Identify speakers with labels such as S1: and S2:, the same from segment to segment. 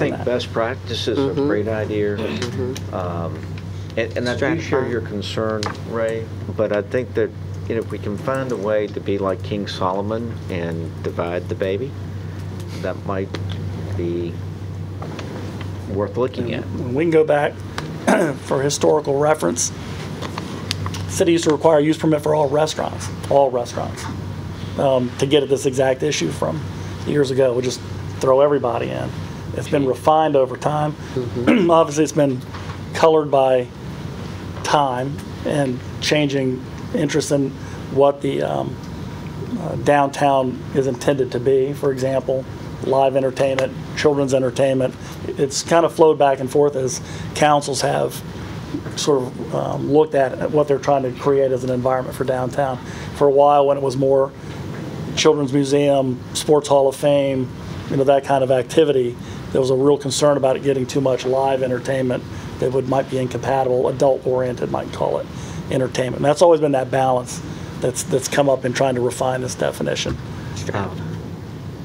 S1: I think best practice is a great idea. Um, And and I do share
S2: Stratify.
S1: your concern, Ray, but I think that, you know, if we can find a way to be like King Solomon and divide the baby, that might be worth looking at.
S3: When we can go back for historical reference, city used to require a use permit for all restaurants, all restaurants, um, to get at this exact issue from years ago. We just throw everybody in. It's been refined over time. Obviously, it's been colored by time and changing interest in what the um, uh, downtown is intended to be. For example, live entertainment, children's entertainment. It's kind of flowed back and forth as councils have sort of um, looked at what they're trying to create as an environment for downtown. For a while, when it was more Children's Museum, Sports Hall of Fame, you know, that kind of activity. There was a real concern about it getting too much live entertainment that would, might be incompatible, adult-oriented, might call it, entertainment. And that's always been that balance that's, that's come up in trying to refine this definition.
S1: Um,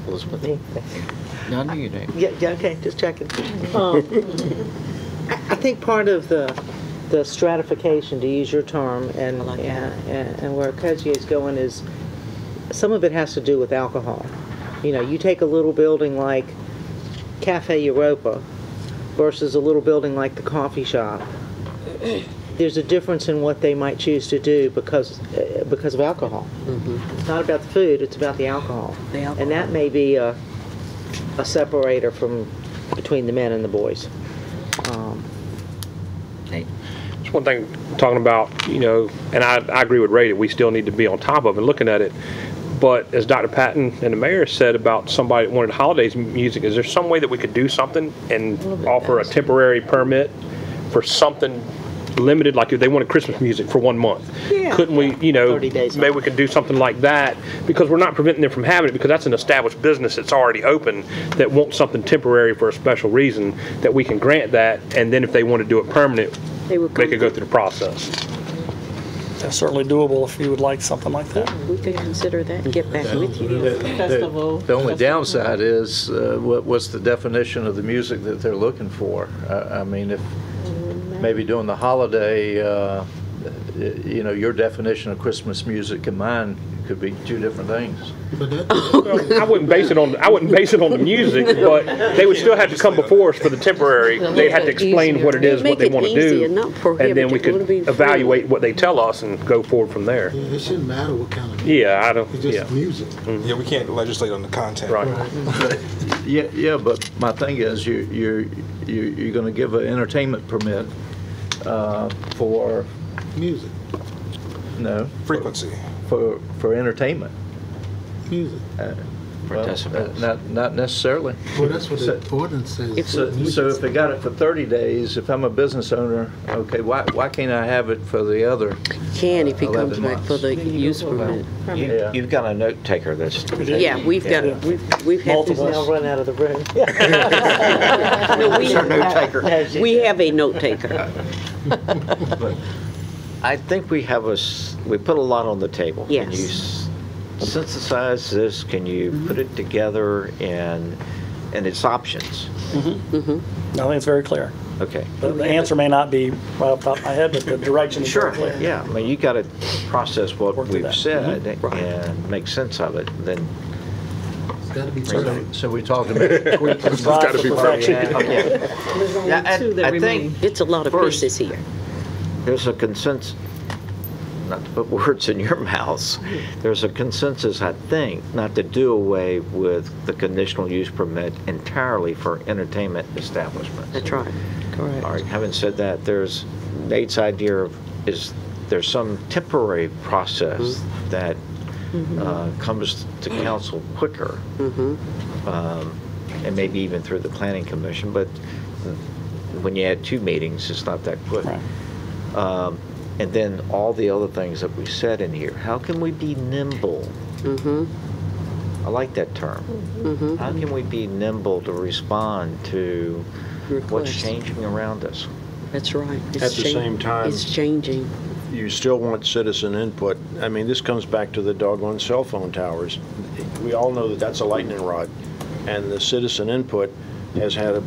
S1: Elizabeth?
S4: No, no, you don't.
S2: Yeah, yeah, okay, just checking. Um, I I think part of the, the stratification, to use your term, and,
S4: I like that.
S2: and and where is going is, some of it has to do with alcohol. You know, you take a little building like Cafe Europa versus a little building like the coffee shop. There's a difference in what they might choose to do because, uh, because of alcohol. It's not about the food, it's about the alcohol.
S4: The alcohol.
S2: And that may be a, a separator from, between the men and the boys. Um,
S5: It's one thing talking about, you know, and I, I agree with Ray that we still need to be on top of and looking at it. But as Dr. Patton and the mayor said about somebody that wanted holidays music, is there some way that we could do something and offer a temporary permit for something limited, like if they wanted Christmas music for one month?
S2: Yeah.
S5: Couldn't we, you know,
S2: 30 days.
S5: maybe we could do something like that? Because we're not preventing them from having it because that's an established business that's already open that wants something temporary for a special reason that we can grant that. And then if they want to do it permanent,
S2: They would
S5: they
S2: come
S5: could go through the process.
S3: That's certainly doable if you would like something like that.
S6: We could consider that and get back with you.
S7: Festival.
S4: The only downside is, uh, what, what's the definition of the music that they're looking for? I, I mean, if, maybe during the holiday, uh, you know, your definition of Christmas music and mine could be two different things.
S5: Well, I wouldn't base it on, I wouldn't base it on the music, but they would still have to come before us for the temporary. They'd have to explain what it is, what they want to
S6: Make it easy and
S5: do.
S6: not prohibitive.
S5: And then we
S6: It
S5: could
S6: would be free.
S5: evaluate what they tell us and go forward from there.
S8: Yeah, it shouldn't matter what kind of.
S5: Yeah, I don't,
S8: It's
S5: yeah,
S8: just music.
S9: Yeah, we can't legislate on the content.
S5: right.
S4: Yeah, yeah, but my thing is, you, you, you, you're gonna give an entertainment permit, uh, for,
S8: Music,
S4: no,
S9: Frequency.
S4: for, for entertainment.
S8: music.
S1: For
S4: Well,
S1: decibels.
S4: Uh, Not, not necessarily.
S8: Well, that's what
S4: So-
S8: the ordinance says.
S4: So, so if they got it for 30 days, if I'm a business owner, okay, why, why can't I have it for the other?
S6: Can if he
S4: 11
S6: comes back
S4: months.
S6: for the use permit.
S1: You-
S4: Yeah.
S1: You've got a note taker that's,
S6: Yeah, we've got, we've, we've had,
S2: He's now run out of the room. Yeah.
S6: no, we,
S1: note taker.
S6: we have a note taker.
S1: I think we have a, s- we put a lot on the table. Can
S6: Yes.
S1: you s- synthesize this? Can you put it together and, and its options?
S3: I think it's very clear.
S1: Okay.
S3: The- The answer may not be right off the top of my head, but the direction is very clear.
S1: Yeah, I mean, you got to process what
S3: Work through
S1: we've
S3: that.
S1: said and make sense of it, then.
S8: It's gotta be.
S4: So- So we talked about tweaking.
S3: Strive for perfection.
S1: Yeah.
S7: There's
S1: Yeah, I-
S7: only two that
S1: I
S7: remain.
S1: think
S6: It's a lot of
S1: First-
S6: pieces here.
S1: there's a consensus, not to put words in your mouths, there's a consensus, I think, not to do away with the conditional use permit entirely for entertainment establishments.
S6: That's right.
S1: All right, having said that, there's, Nate's idea of, is there's some temporary process that uh, comes to council quicker, Um, and maybe even through the planning commission, but when you add two meetings, it's not that quick.
S3: Right.
S1: Um, And then all the other things that we said in here, how can we be nimble? I like that term. How can we be nimble to respond to what's
S6: Request.
S1: changing around us?
S6: That's right. At
S10: At the same time-
S6: It's changing.
S10: you still want citizen input. I mean, this comes back to the doggone cell phone towers. We all know that that's a lightning rod, and the citizen input has had a